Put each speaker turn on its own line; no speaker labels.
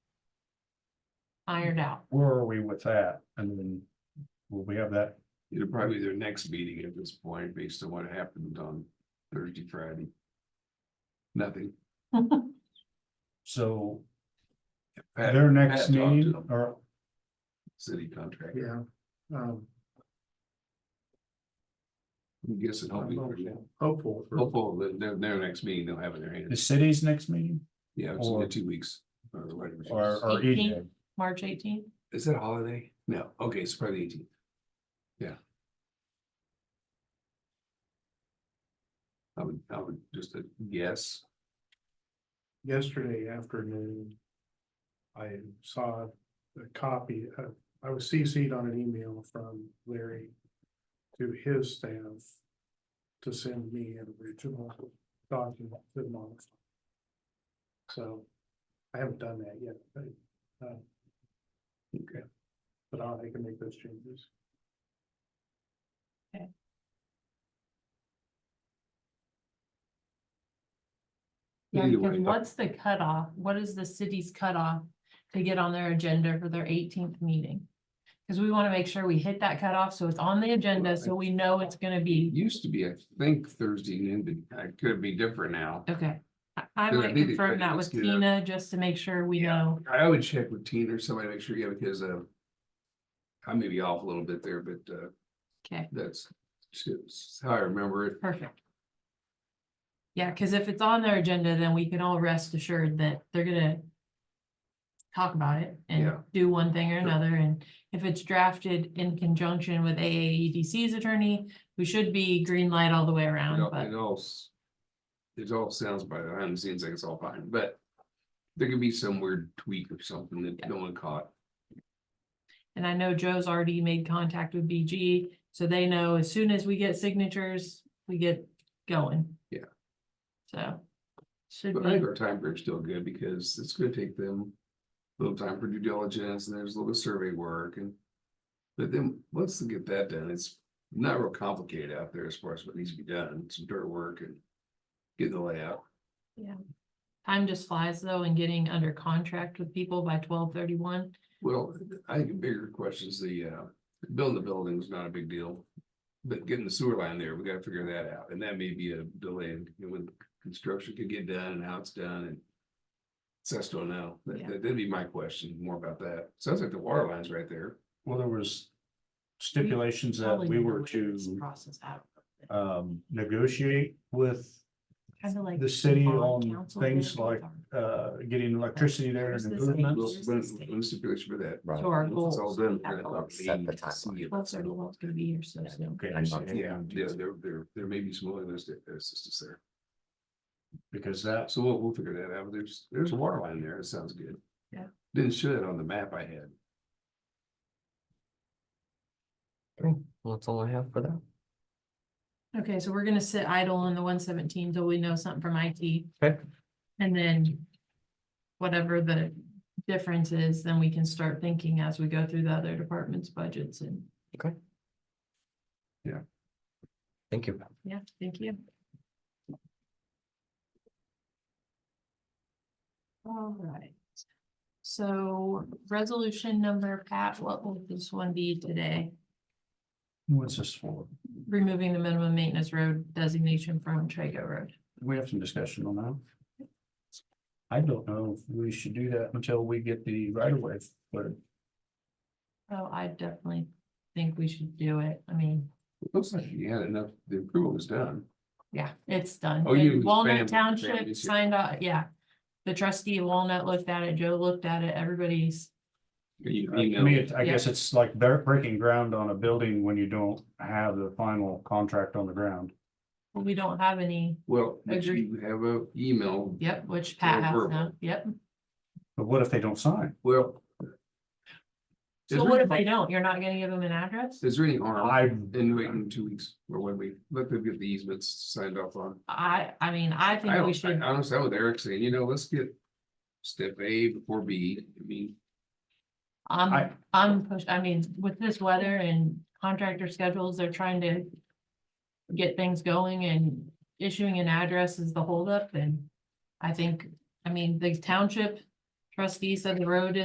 ironed out.
where are we with that? And then will we have that?
It'll probably be their next meeting at this point, based on what happened on Thursday, Friday. Nothing.
So
Pat-
their
Pat
next
talked to
meeting
them,
or
City contract.
Yeah, um,
I'm guessing hopefully,
hopeful. for-
hopefully, their, their next meeting, they'll have in their
the
hands.
city's next meeting
Yeah, it's in
or-
the two weeks. or whatever it is.
or, E or EJ?
March eighteenth,
Is that a holiday? No, okay, it's probably eighteenth. Yeah. I would, I would just uh, guess,
Yesterday afternoon. I saw a copy of, I was CC'd on an email from Larry. To his staff. To send me an original document to modify. So. I haven't done that yet, but, uh,
okay,
but I'll, I can make those changes.
yeah,
Either
because
way, I-
what's the cutoff, what is the city's cutoff to get on their agenda for their eighteenth meeting? Cause we wanna make sure we hit that cutoff, so it's on the agenda, so we know it's gonna
it
be,
used to be, I think Thursday, noon, but it could be different now.
okay. I- I
Yeah,
might
maybe,
confirm
but
that
let's
with
do that.
Tina, just to make sure we
Yeah.
know,
I would check with Tina or somebody, make sure, yeah, because, uh. I may be off a little bit there, but, uh,
okay,
that's, that's how I remember it.
perfect. Yeah, cause if it's on their agenda, then we can all rest assured that they're gonna talk about it and
Yeah.
do one thing or
Sure.
another, and if it's drafted in conjunction with AAEDC's attorney, we should be green light all the way
It
around,
all-
but
It all, s- it all sounds by the behind the scenes like it's all fine, but there could be some weird tweak or something that no one caught.
And I know Joe's already made contact with BG, so they know as soon as we get signatures, we get going.
Yeah.
So. Should
But I
be,
think our time frame's still good because it's gonna take them a little time for due diligence and there's a little survey work and. But then, once they get that done, it's not real complicated out there as far as what needs to be done, some dirt work and getting the layout.
time just flies though, and getting under contract with people by twelve thirty-one.
Well, I think a bigger question is the, uh, building the building is not a big deal. But getting the sewer line there, we gotta figure that out, and that may be a delay in when construction could get done and how it's done and. So I still know, that,
Yeah.
that- that'd be my question, more about that, sounds like the water line's right there,
Well, there was stipulations that we were to
Process out.
um negotiate with
Kind of like.
the city
bond
on
council
things
did with
like
our-
uh getting electricity there
Where's
and
this
improvements.
we'll,
Here's the
when,
state.
when stipulation for that.
To our
Once
goals.
it's all done,
Have
we're
to,
gonna
like,
talk
set the
to see if-
Twelve thirty-one is gonna be here so soon.
Okay,
I'm
so-
sorry.
Yeah, there, there, there, there may be some willingness to assistance there,
because that's,
so we'll, we'll figure that out, there's, there's a water line there, it sounds good.
Yeah.
Didn't show it on the map I had.
Well, that's all I have for that.
Okay, so we're gonna sit idle on the one seventeen till we know something from IT.
Okay.
And then whatever the difference is, then we can start thinking as we go through the other departments' budgets and,
Thank you.
yeah, thank you. All right. So resolution number, Pat, what will this one be today?
what's this for?
Removing the minimum maintenance road designation from Trago Road.
We have some discussion on that. I don't know if we should do that until we get the right of way, but
Oh, I definitely think we should do it. I mean.
It Looks like you had enough, the approval was done.
Yeah, it's done.
Oh, you-
And Walnut
family-
Township
families here.
signed out, yeah. The trustee of Walnut looked at it, Joe looked at it, everybody's,
You
I mean,
emailed,
it's- I guess it's like bre- breaking ground on a building when you don't have the final contract on the ground.
we don't have any,
well, did
Agree.
you have a email,
yep, which
Or
Pat has
verbal.
now, yep.
But what if they don't sign?
well. is
So
there
what if
any-
they don't? You're not gonna give them an address?
Is there any harm
I,
in waiting two weeks or when we, let them get the easements signed off on?
I, I mean, I
I
think we
don't, I
should,
honestly, I'm with Eric saying, you know, let's get step A before B, I mean,
I'm,
I-
I'm pushed, I mean, with this weather and contractor schedules, they're trying to get things going and issuing an address is the holdup and I think, I mean, the township trustee said the road